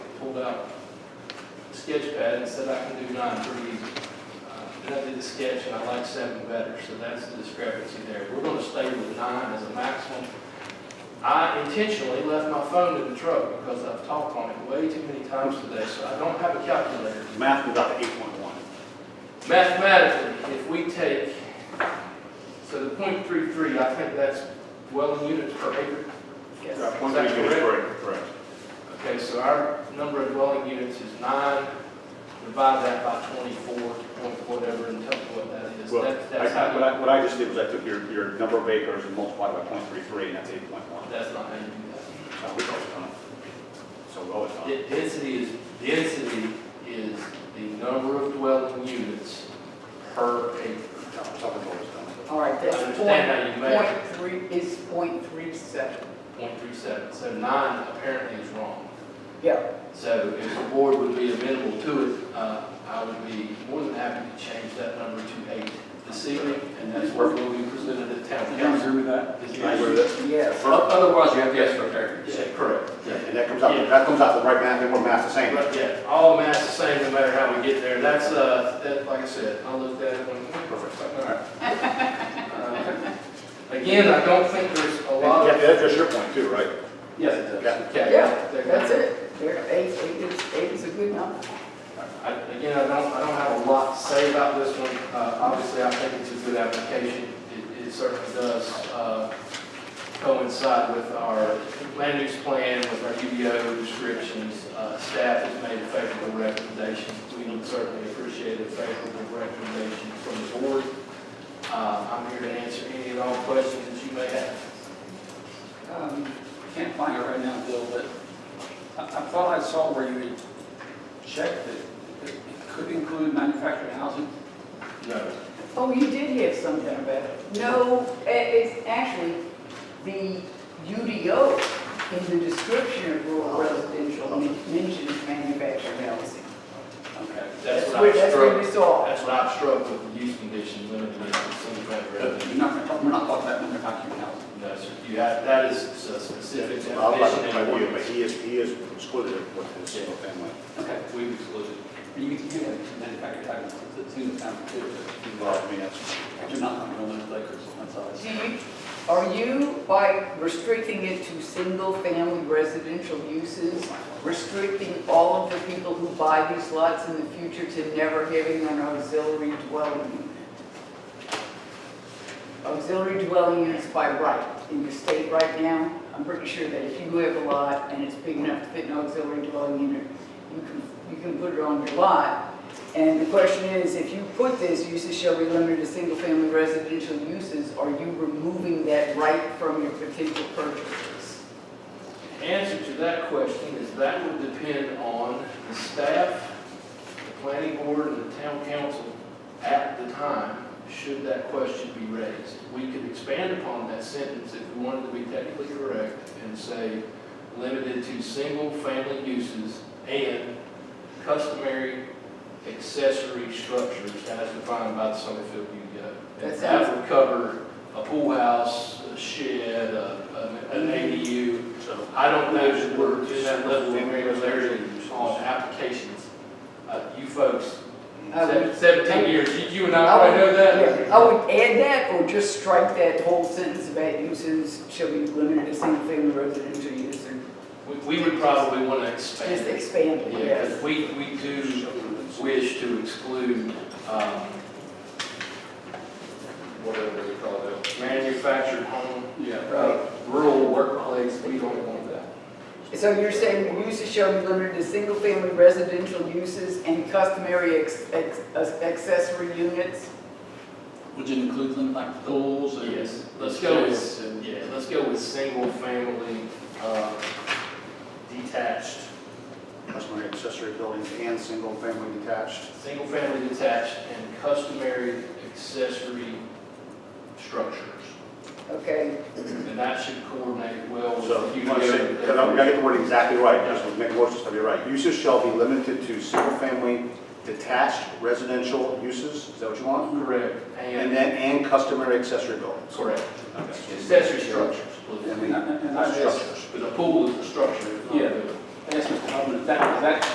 pulled out a sketch pad and said I can do nine pretty easy. Uh, Then I did the sketch and I liked seven better, so that's the discrepancy there. We're gonna stay with nine as a maximum. I intentionally left my phone in the truck because I've talked on it way too many times today, so I don't have a calculator. Math goes out to eight point one. Mathematically, if we take, so the point three three, I think that's dwelling units per acre. Right, Is Point that three units correct? per acre, correct. Okay, so our number of dwelling units is nine, divide that by twenty-four, point whatever, and tell me what that is. Well, That's, that's I- what how, I, what I just did was I took your, your number of acres and multiplied by point three three, and that's eight point one. you- that's not how you do So we've always done it. So we've always done that. it. D- Density is, density is the number of dwelling units per acre. No, it's always always done it. All right, that's I understand how you point, measure. point three, is point three seven. Point three seven, so nine apparently is wrong. Yeah, So if the board would be amenable to it, uh, I would be more than happy to change that number to eight this evening, and that's what will be presented at town council. agree with that? Is I agree the- with yes. Otherwise, you have to ask for variance. Yeah, Correct. that. Yeah, And that comes out, to- that comes out to the right math, and we're math the same. But yeah, all math's the same, no matter how we get there. That's, uh, that, like I said, I looked at it when. Perfect. Uh, Again, I don't think there's a lot Yeah, of. that's just your point too, right? Yes, it Yeah. Okay. Yeah, that's it. There, eight, eight is, eight is a good number. I- Again, I don't, I don't have a lot to say about this one. Uh, Obviously, I think it's a good application. It- It certainly does uh, coincide with our land use plan, with our UDO restrictions. Uh, Staff has made a favorable recommendation. We would certainly appreciate a favorable recommendation from the board. Uh, I'm here to answer any and all questions that you may have. Um, I Can't find it right now, Bill, but I, I thought I saw where you had checked that it could include manufactured housing. No. Oh, you did have something about it. No, i- it's actually the UDO in the description of rural residential men- mentions manufactured housing. Okay. That's what where- I That's struggled, where we saw. that's what I struggled with, the use condition limited to single-family residential. You're not, gonna talk- we're not talking about manufactured housing. No, sir, you have, that is a specific So I'll like definition and it by you, but ordinance. he is, he is excluded with his single family. Okay. We've excluded. And you can give it manufactured housing, it's a single family too. Well, I mean, that's. but You're not talking about acres, that's all. Do you, are you, by restricting it to single-family residential uses, restricting all of the people who buy these lots in the future to never having an auxiliary dwelling unit? Auxiliary dwelling units by right in your state right now, I'm pretty sure that if you have a lot and it's big enough to fit an auxiliary dwelling unit, you can, you can put it on your lot. And the question is, if you put this, uses shall be limited to single-family residential uses, are you removing that right from your potential purchasers? Answer to that question is that would depend on the staff, the planning board, and the town council at the time, should that question be raised. We could expand upon that sentence if we wanted to be technically correct and say, limited to single-family uses and customary accessory structures as defined by the Summerfield UDO. And That sounds- that would cover a pool house, a shed, a- an an ADU, So I don't know that we're to that level of granularity on applications. Uh, You folks, I se- would- seventeen years, you- you and I probably know Yeah, I that. would add that or just strike that whole sentence about uses shall be limited to single-family residential use and We- We would probably want to expand. just it. expand it, Yeah, yes. 'cause we, we do wish to exclude, um, whatever they call it, manufactured home, Yeah. Right. Uh, rural workplace, we don't want that. So you're saying the uses shall be limited to single-family residential uses and customary ex- ex- accessory units? Would you include them like pools and? Yes, let's go with, yeah, let's go with single family, uh, detached customary accessory buildings and single family detached. Single-family detached and customary accessory structures. Okay, And that should coordinate well with. So you the want to say, UDO. because I'm going to get the word exactly right, just to make the motion to be right. Uses shall be limited to single-family detached residential uses, is that what you want? Correct, And and, then, and customary accessory buildings. correct, Okay. accessory structures. And And, then- and- and I Not just, structures. Because a pool is a structure. it's not a Yeah. building. and Yes, Mr. Hubbard, that, that